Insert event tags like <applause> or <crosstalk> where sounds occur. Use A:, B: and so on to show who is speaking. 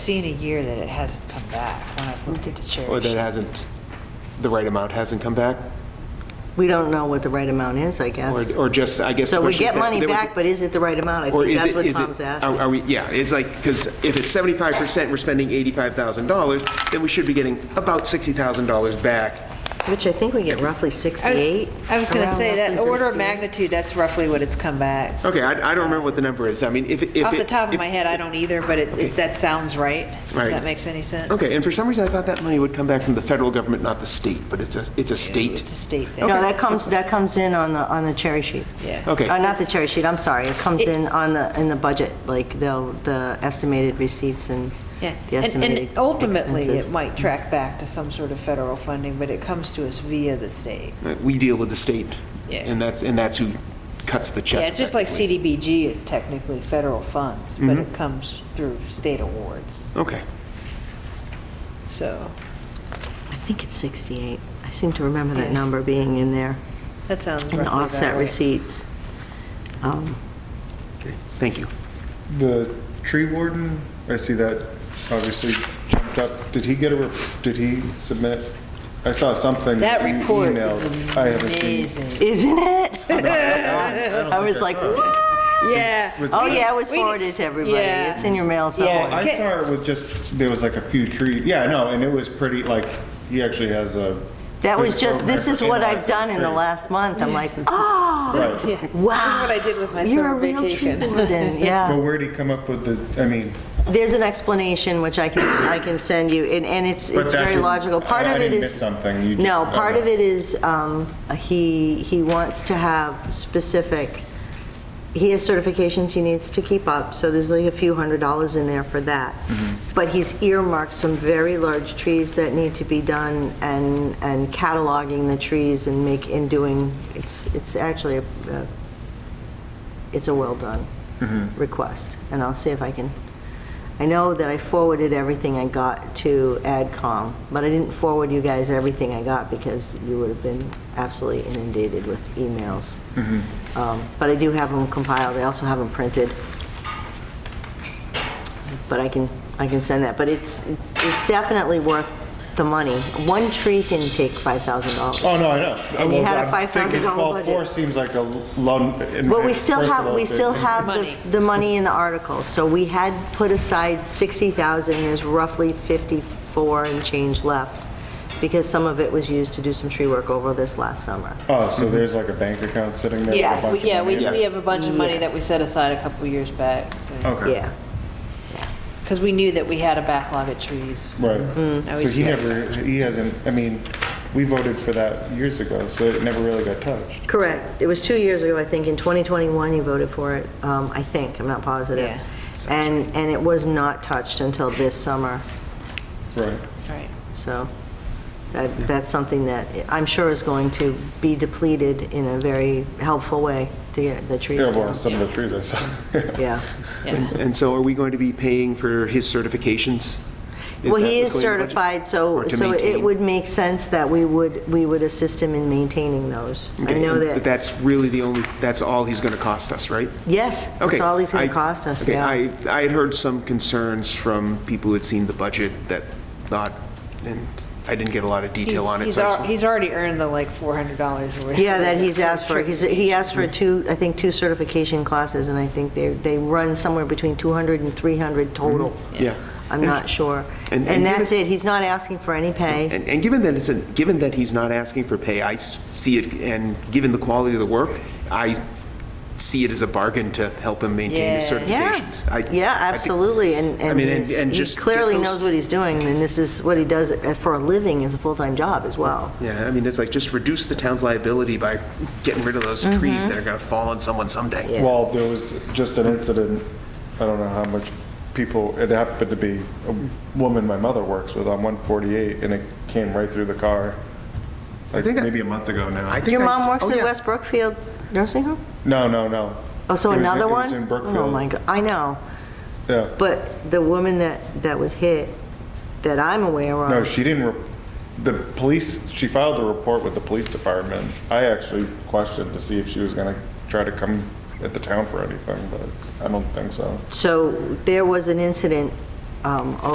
A: seen a year that it hasn't come back when I've looked at the church.
B: Or that hasn't, the right amount hasn't come back?
C: We don't know what the right amount is, I
B: Or
C: guess.
B: or just, I guess. the
C: So we
B: question is
C: get
B: that-
C: money
B: that we-
C: back, but is it the right amount? I
B: Or
C: think
B: is
C: that's
B: it,
C: what
B: is
C: Tom's
B: it,
C: asking.
B: are are we, yeah, it's like, because if it's 75%, we're spending $85,000, then we should be getting about $60,000 back.
C: Which I think we get
A: I
C: roughly
A: was-
C: 68.
A: I was going to
C: around
A: say, that
C: roughly
A: order of
C: 68.
A: magnitude, that's roughly what it's come back.
B: Okay, I I don't remember what the number is. I mean, if. if
A: Off the
B: it-
A: top of
B: if-
A: my head, I don't either, but it- it, that sounds right. if
B: Right.
A: That makes any sense.
B: Okay, and for some reason, I thought that money would come back from the federal government, not the state, but it's a, it's a state.
A: It's a state thing.
C: No, that comes, that comes in on the, on the cherry sheet.
A: Yeah.
B: Okay.
C: Uh, Not the cherry sheet, I'm sorry. It comes in on the, in the budget, like the, the estimated receipts and
A: Yeah,
C: the
A: and
C: estimated
A: and ultimately,
C: expenses.
A: it might track back to some sort of federal funding, but it comes to us via the state.
B: We deal with the state.
A: Yeah.
B: And that's, and that's who cuts the check.
A: Yeah, it's just like
B: effectively.
A: CDBG is technically federal funds,
B: Mm-hmm.
A: but it comes through state awards,
B: Okay.
A: so
C: I think it's 68. I seem to remember that number being in there,
A: that sounds roughly
C: in
A: about
C: offset
A: right.
C: receipts. Um,
B: Okay, Thank you.
D: The tree warden, I see that obviously jumped up. Did he get a, re- did he submit? I saw something.
A: That
D: he
A: report
D: emailed.
A: is
D: I haven't seen.
A: amazing.
C: Isn't it?
D: I
C: I was like, what?
A: Yeah.
D: Was-
C: Oh, yeah, it was
A: We-
C: forwarded to everybody.
A: Yeah.
C: It's in your mail
D: Well,
C: somewhere.
D: I saw it with just, there was like a few trees. Yeah, no, and it was pretty, like, he actually has a.
C: That was
D: good
C: just,
D: program
C: this
D: for
C: is what I've
D: analyzing
C: done in the
D: trees.
C: last month. I'm like, oh,
D: Right.
A: <laughs> Yeah. That's
C: wow.
A: what I did with my
C: You're a
A: summer
C: real tree
A: vacation.
C: warden, yeah.
D: But where'd he come up with the, I mean,
C: There's an explanation which I can, I can send you, and, and it's,
D: But
C: it's
D: that
C: very
D: didn't-
C: logical. Part
D: I- I
C: of it
D: didn't
C: is.
D: miss something, you
C: No,
D: just-
C: part of
D: okay.
C: it is, um, he, he wants to have specific, he has certifications he needs to keep up, so there's like a few hundred dollars in there for that.
D: Mm-hmm.
C: But he's earmarked some very large trees that need to be done and, and cataloging the trees and make, and doing, it's, it's actually a, a- it's a well-done request. And I'll see if I can, I know that I forwarded everything I got to AdCom, but I didn't forward you guys everything I got because you would have been absolutely inundated with emails. Um, But I do have them compiled, I also have them printed. But I can, I can send that, but it's, it's definitely worth the money. One tree can take $5,000.
D: oh, no, I know.
C: And you
D: Well,
C: had a
D: I'm
C: $5,000
D: thinking 12.4
C: budget.
D: seems like a low.
C: Well, we still have, we still have
A: Money.
C: the- the money in the articles, so we had put aside 60,000, there's roughly 54 and change left, because some of it was used to do some tree work over this last summer.
D: Oh, so there's like a bank account sitting there? with a
C: Yes,
D: bunch
A: We- <laughs>
D: of
A: Mm-hmm. Yeah, we,
D: money?
A: we have a bunch of money that we
C: Yes.
A: set aside a couple years back,
D: Okay.
C: Yeah.
A: because we knew that we had a backlog of trees.
D: Right.
A: Mm-hmm. Now
D: So
A: he's
D: he
A: got-
D: never, he hasn't, I mean, we voted for that years ago, so it never really got touched.
C: Correct. It was two years ago, I think, in 2021 you voted for it, um, I think, I'm not positive.
A: Yeah.
C: And, and it was not touched until this summer,
D: Right.
A: Right.
C: so that, that's something that I'm sure is going to be depleted in a very helpful way to get the trees
D: Yeah,
C: down.
D: well, some of the trees I saw.
C: Yeah.
A: Yeah.
B: And so are we going to be paying for his certifications?
C: Well,
B: that
C: he is
B: what's going in the budget?
C: certified, so,
B: Or to
C: so it
B: maintain?
C: would make sense that we would, we would assist him in maintaining those. I
B: Okay,
C: know
B: and- But
C: that,
B: that's really the only, that's all he's going to cost us, right?
C: yes,
B: Okay.
C: that's all he's going
B: I-
C: to cost us,
B: okay,
C: yeah.
B: I, I had heard some concerns from people who had seen the budget that thought, and I didn't get a lot of detail
A: He's-
B: on it.
A: He's,
B: so I
A: al-
B: just-
A: he's already earned the like four hundred dollars or whatever.
C: Yeah, that he's
A: <laughs>
C: asked for,
A: Sure.
C: he's, he asked for two, I think, two certification classes, and I think they, they run somewhere between 200 and 300 total.
B: Mm-hmm. Yeah.
C: I'm
B: And-
C: not sure.
B: and-
C: And
B: and
C: that's
B: given-
C: it, he's not asking for any pay.
B: And, and given that it's, a- given that he's not asking for pay, I s- see it, and given the quality of the work, I see it as a bargain to help him maintain his
A: Yeah.
C: Yeah,
B: certifications. I-
C: yeah,
B: I think-
C: absolutely, and,
B: I
C: and
B: mean, and-
C: he's-
B: and
C: he
B: just get
C: clearly
B: those-
C: knows what he's doing, and this is what he does for a living, is a full-time job as well.
B: Yeah, I mean, it's like, just reduce the town's liability by getting rid of those
C: Mm-hmm.
B: trees that are gonna fall on someone someday.
C: Yeah.
D: <laughs> Well, there was just an incident, I don't know how much people, it happened to be a woman my mother works with on 148, and it came right through the car. Like
B: think I-
D: maybe a month ago now.
B: I think
C: Your
B: I-
C: mom works
B: oh,
C: at
B: yeah.
C: West Brookfield Nursing Home?
D: No, no, no.
C: Oh, so
D: It was in-
C: another one?
D: It was in
C: Oh, my
D: Brookfield.
C: God, I know,
D: Yeah.
C: but the woman that, that was hit, that I'm aware of.
D: No, she didn't, re- the police, she filed a report with the police department. I actually questioned to see if she was gonna try to come at the town for anything, but I don't think so.
C: So there was an incident um,